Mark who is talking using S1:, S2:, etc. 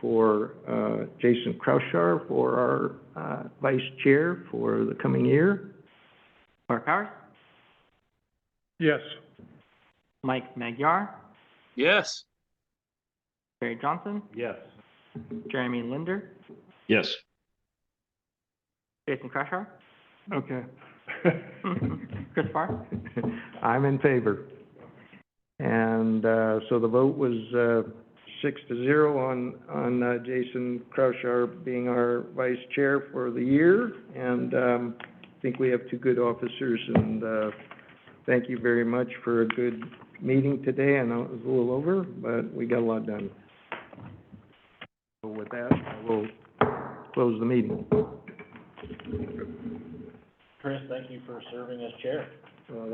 S1: for uh, Jason Kraushar for our uh, vice chair for the coming year. Mark Howard,
S2: Yes.
S1: Mike Magyar,
S3: Yes.
S1: Barry Johnson,
S2: Yes.
S1: Jeremy Linder,
S3: Yes.
S1: Jason Kraushar,
S2: Okay.
S1: Chris Farr. I'm in favor. And uh, so the vote was uh, six to zero on, on uh, Jason Kraushar being our vice chair for the year. And um, I think we have two good officers, and uh, thank you very much for a good meeting today. I know it was a little over, but we got a lot done. So with that, I will close the meeting.
S4: Chris, thank you for serving as chair.